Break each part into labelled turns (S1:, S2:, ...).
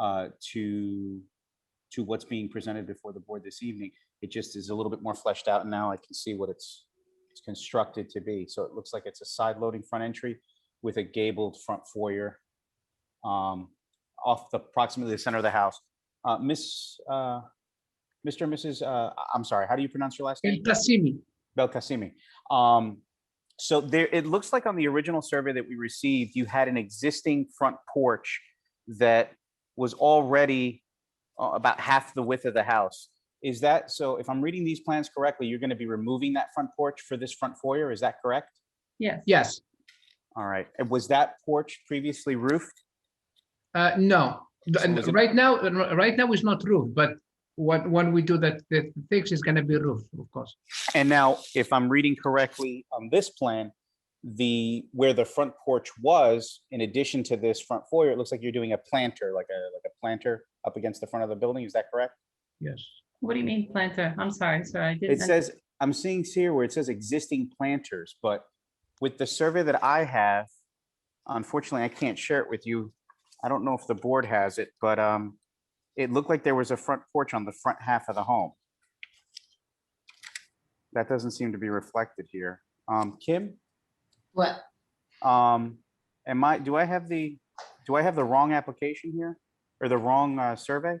S1: uh, to, to what's being presented before the board this evening. It just is a little bit more fleshed out and now I can see what it's, it's constructed to be. So it looks like it's a side-loading front entry with a gabled front foyer um, off the approximately the center of the house. Uh, Miss, uh, Mr. and Mrs., uh, I- I'm sorry, how do you pronounce your last name?
S2: El Tasimi.
S1: Belkacemi. Um, so there, it looks like on the original survey that we received, you had an existing front porch that was already uh, about half the width of the house. Is that, so if I'm reading these plans correctly, you're going to be removing that front porch for this front foyer, is that correct?
S3: Yes.
S2: Yes.
S1: All right, and was that porch previously roofed?
S2: Uh, no, The-
S1: So is it-
S2: right now, right now is not roof, but when, when we do that, the things is gonna be roof, of course.
S1: And now, if I'm reading correctly on this plan, the, where the front porch was, in addition to this front foyer, it looks like you're doing a planter, like a, like a planter up against the front of the building, is that correct?
S2: Yes.
S3: What do you mean planter? I'm sorry, sir. I didn't.
S1: It says, I'm seeing here where it says existing planters, but with the survey that I have, unfortunately, I can't share it with you. I don't know if the board has it, but um, it looked like there was a front porch on the front half of the home. That doesn't seem to be reflected here. Um, Kim,
S4: What,
S1: um, am I, do I have the, do I have the wrong application here? Or the wrong uh, survey?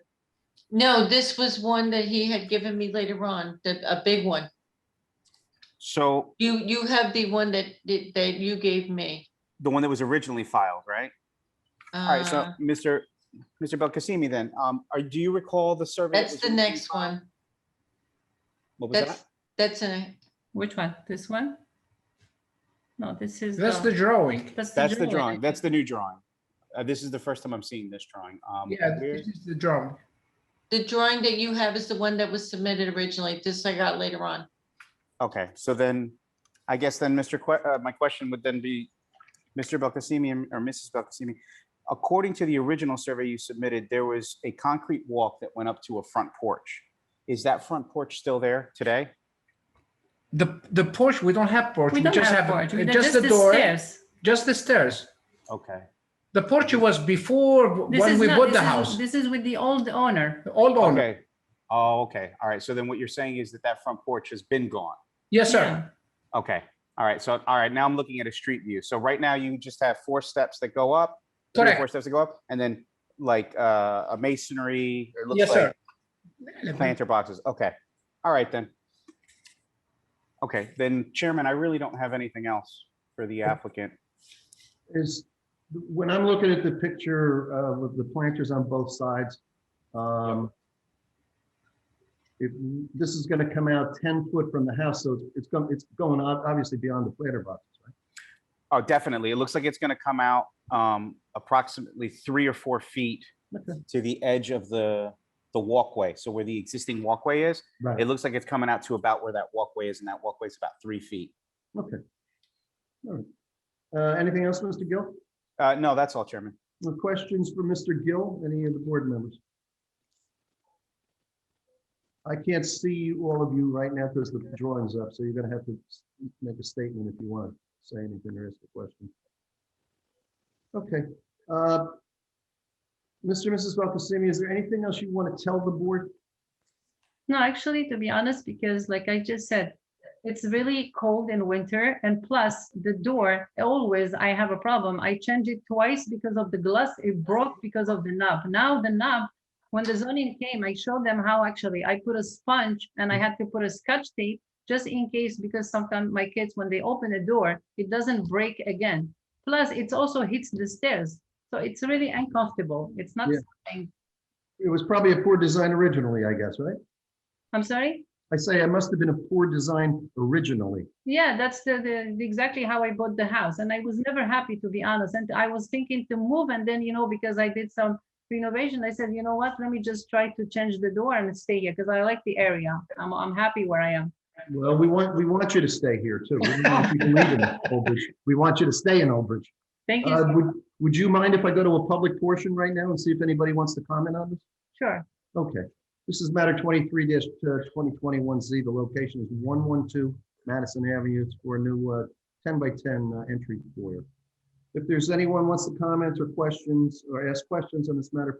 S4: no, this was one that he had given me later on, the, a big one.
S1: So
S4: You, you have the one that, that that you gave me.
S1: the one that was originally filed, right? All right, so
S4: Uh,
S1: Mr. Mr. Belkacemi, then, um, are, do you recall the survey? that
S4: That's
S1: was
S4: the
S1: originally
S4: next
S1: filed?
S4: one.
S1: What was
S4: That's,
S1: that?
S4: that's a,
S3: Which one? This one? No, this is.
S2: That's the drawing.
S1: That's the drawing. That's the new drawing. Uh, this is the first time I'm seeing this drawing. Um,
S2: Yeah,
S1: where-
S2: this is the drawing.
S4: the drawing that you have is the one that was submitted originally. This I got later on.
S1: Okay, so then, I guess then, Mr. Que- uh, my question would then be, Mr. Belkacemi and- or Mrs. Belkacemi, according to the original survey you submitted, there was a concrete walk that went up to a front porch. Is that front porch still there today?
S2: The, the porch, we don't have porch,
S3: We
S2: we
S3: don't
S2: just
S3: have
S2: have
S3: a porch.
S2: uh,
S3: We don't-
S2: just the
S3: the
S2: door,
S3: stairs.
S2: just the stairs.
S1: Okay,
S2: The porch was before
S3: This
S2: when
S3: is
S2: we
S3: not-
S2: bought
S3: this
S2: the
S3: is-
S2: house,
S3: This is with the old owner.
S2: old owner.
S1: okay. Oh, okay, all right. So then what you're saying is that that front porch has been gone?
S2: Yes, sir.
S3: Yeah.
S1: Okay, all right, so, all right, now I'm looking at a street view. So right now you just have four steps that go up, three or four
S2: Correct.
S1: steps that go up, and then like uh, a masonry, or it looks
S2: Yes, sir.
S1: like planter boxes, okay. All right then. Okay, then Chairman, I really don't have anything else for the applicant.
S5: is, when I'm looking at the picture of the planters on both sides, um, it, this is gonna come out ten foot from the house, so it's- it's going, it's going on, obviously beyond the planter box.
S1: Oh, definitely. It looks like it's gonna come out um, approximately three or four feet to the edge of the, the walkway. So where the existing walkway is,
S5: Right.
S1: it looks like it's coming out to about where that walkway is, and that walkway is about three feet.
S5: Okay. All right. Uh, anything else, Mr. Gill?
S1: Uh, no, that's all, Chairman.
S5: No Questions for Mr. Gill, any of the board members? I can't see all of you right now because the drawing's up, so you're gonna have to s- make a statement if you want, to say anything or ask a question. Okay. uh, Mr. and Mrs. Belkacemi, is there anything else you want to tell the board?
S3: No, actually, to be honest, because like I just said, it's really cold in winter and plus the door, always I have a problem. I changed it twice because of the glass. It broke because of the knob. Now the knob, when the zoning came, I showed them how actually I put a sponge and I had to put a scotch tape just in case, because sometimes my kids, when they open a door, it doesn't break again. Plus, it's also hits the stairs. So it's really uncomfortable. It's not,
S5: Yeah. It was probably a poor design originally, I guess, right?
S3: I'm sorry?
S5: I say it must have been a poor design originally.
S3: Yeah, that's the, the the- exactly how I bought the house, and I was never happy to be honest. And I was thinking to move, and then you know because I did some renovation, I said, you know what, let me just try to change the door and stay here because I like the area. I'm I'm happy where I am.
S5: Well, we want, we want you to stay here too. We don't want you to leave in Old Bridge. We want you to stay in Old Bridge.
S3: Thank you.
S5: Uh,
S3: so-
S5: Would, would you mind if I go to a public portion right now and see if anybody wants to comment on this?
S3: Sure.
S5: Okay, this is matter twenty-three uh, twenty twenty-one Z. The location is one one two Madison Avenue. It's for a new uh, ten by ten uh, entry foyer. If there's anyone wants to comment or questions or ask questions on this matter,